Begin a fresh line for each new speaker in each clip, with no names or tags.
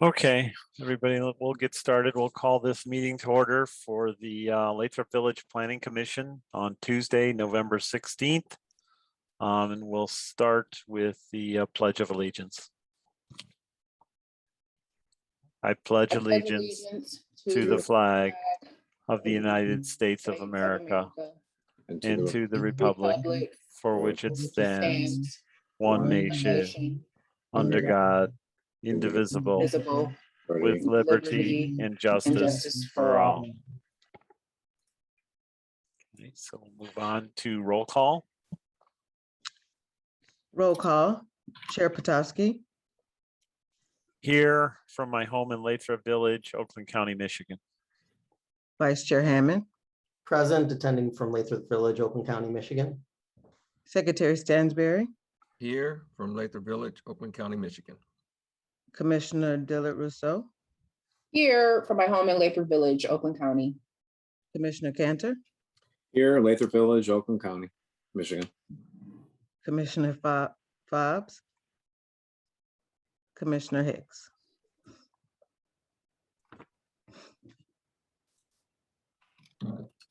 Okay, everybody, l- we'll get started. We'll call this meeting to order for the uh, Lathrop Village Planning Commission on Tuesday, November 16th. Um, And we'll start with the uh, Pledge of Allegiance. I pledge
I pledge
allegiance to the flag of the United States of America
and
and
the
to the republic for which it stands, one
one
nation, under
under
God, indivisible,
Visible
recording.
with liberty
liberty
and
and
justice
justice
for all. Okay, So we'll move on to roll call.
Roll call, Chair Potowski,
Here from my home in Lathrop Village, Oakland County, Michigan.
Vice Chair Hammond,
Present, attending from Lathrop Village, Oakland County, Michigan.
Secretary Stansberry,
Here from Lathrop Village, Oakland County, Michigan.
Commissioner Dillard Rousseau,
Here from my home in Lathrop Village, Oakland County.
Commissioner Cantor,
Here, Lathrop Village, Oakland County, Michigan.
Commissioner Fob- Fobbs, Commissioner Hicks.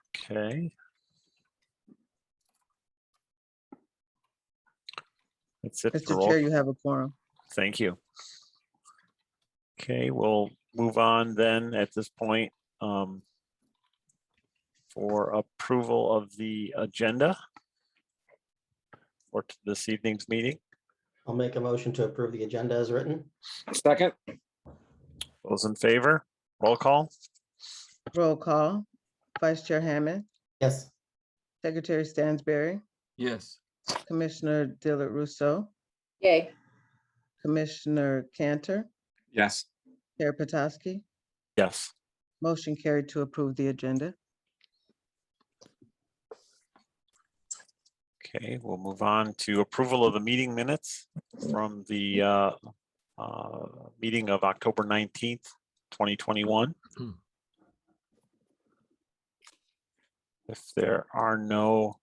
Okay. That's it. for
Mr.
roll
Chair, you have a quorum.
Thank you. Okay, we'll move on then at this point um, for approval of the agenda for t- this evening's meeting.
I'll make a motion to approve the agenda as written.
Second,
Those in favor, roll call.
Roll call, Vice Chair Hammond,
Yes,
Secretary Stansberry,
Yes,
Commissioner Dillard Rousseau,
Yay.
Commissioner Cantor,
yes.
Chair Potowski,
Yes.
motion carried to approve the agenda.
Okay, we'll move on to approval of the meeting minutes from the uh, uh, meeting of October 19th, 2021. If there are no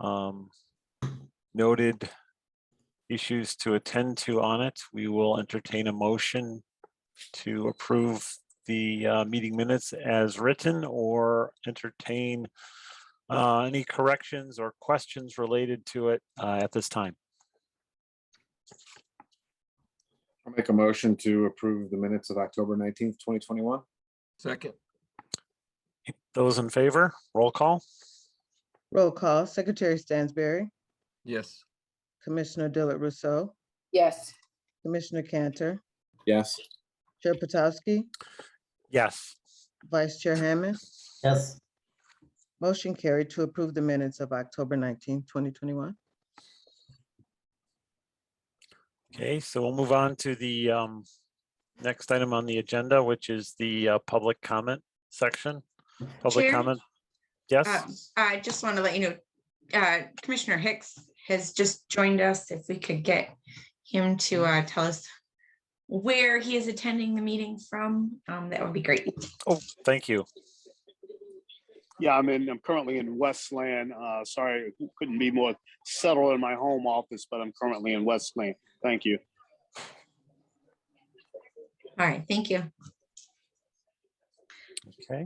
um, noted issues to attend to on it, we will entertain a motion to approve the uh, meeting minutes as written or entertain uh, any corrections or questions related to it uh, at this time.
I'll make a motion to approve the minutes of October nineteenth, twenty twenty-one.
second,
Those in favor, roll call.
Roll call, Secretary Stansberry,
yes,
Commissioner Dillard Rousseau,
Yes.
Commissioner Cantor,
Yes,
Chair Potowski,
Yes.
Vice Chair Hammond,
yes,
motion carried to approve the minutes of October 19, twenty twenty-one.
Okay, so we'll move on to the um, next item on the agenda, which is the uh, public comment section. Public
Chair?
comment.
Uh,
Yes,
I just want to let you know, uh, Commissioner Hicks has just joined us. If we could get him to uh, tell us where he is attending the meeting from, um, that would be great.
Oh, thank you.
Yeah, I'm in, I'm currently in Westland. Uh, sorry, couldn't be more settled in my home office, but I'm currently in Westland. Thank you.
All right, thank you.
Okay.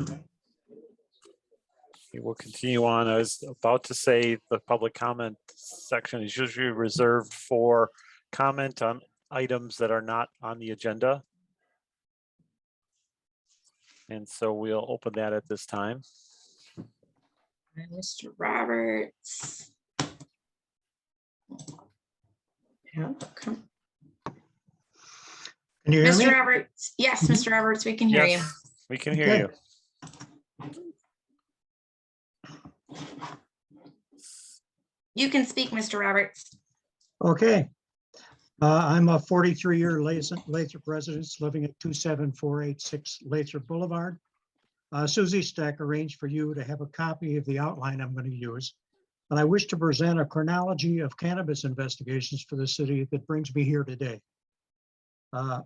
We will continue on. I was about to say the public comment section is usually reserved for comment on items that are not on the agenda. And so we'll open that at this time.
And Mr. Uh, Roberts. Yeah, come- Mr. Roberts, yes, Mr. Roberts, we can hear you.
Yes, we can hear you.
You can speak, Mr. Roberts.
Okay. Uh, I'm a forty-three year Lathrop Lathrop resident, living at two seven four eight six Lathrop Boulevard. Uh, Suzie Stack arranged for you to have a copy of the outline I'm going to use. And I wish to present a chronology of cannabis investigations for the city that brings me here today. Uh,